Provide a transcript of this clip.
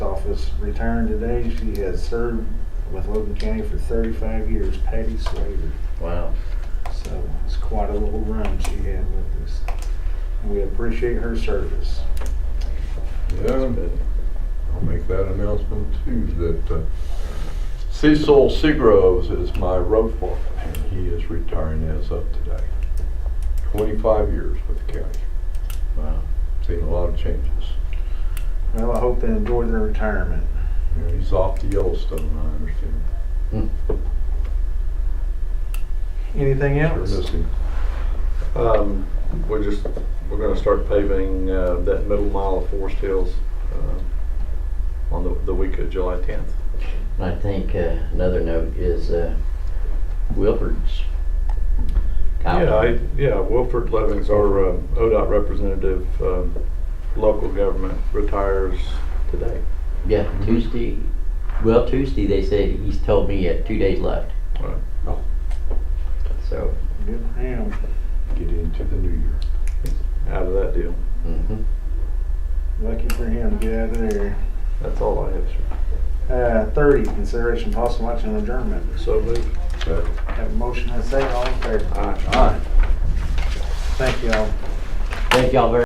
office, retiring today. She has served with Logan County for 35 years, Patty Slater. Wow. So it's quite a little run she had with us. And we appreciate her service. Yeah, I'll make that announcement too, that uh, Cecil Seagroves is my road foreman, and he is retiring as of today. Twenty-five years with the county, Wow. seen a lot of changes. Well, I hope they enjoy their retirement. You know, he's off to Yellowstone, I understand. Hmm. Anything Sure else? miss him. Um, we're just, we're gonna start paving, uh, that middle mile of Forest Hills, uh, on the, the week of July tenth. I think uh, another note is uh, Wilford's. out. Yeah, I, yeah, Wilford Levings, our, uh, ODOT representative, um, local government retires today. Yeah, Tuesday. Well, Tuesday they said he's told me he had two days left. Right. So. Good for him. Get into the new year. Out of that deal. mhm. Lucky for him to get out of there. That's all I have, sir. Uh, 30, consideration possible action on adjournment. So moved. That- Have a motion and a second, all in favor? Aye. Thank you all. Thank y'all very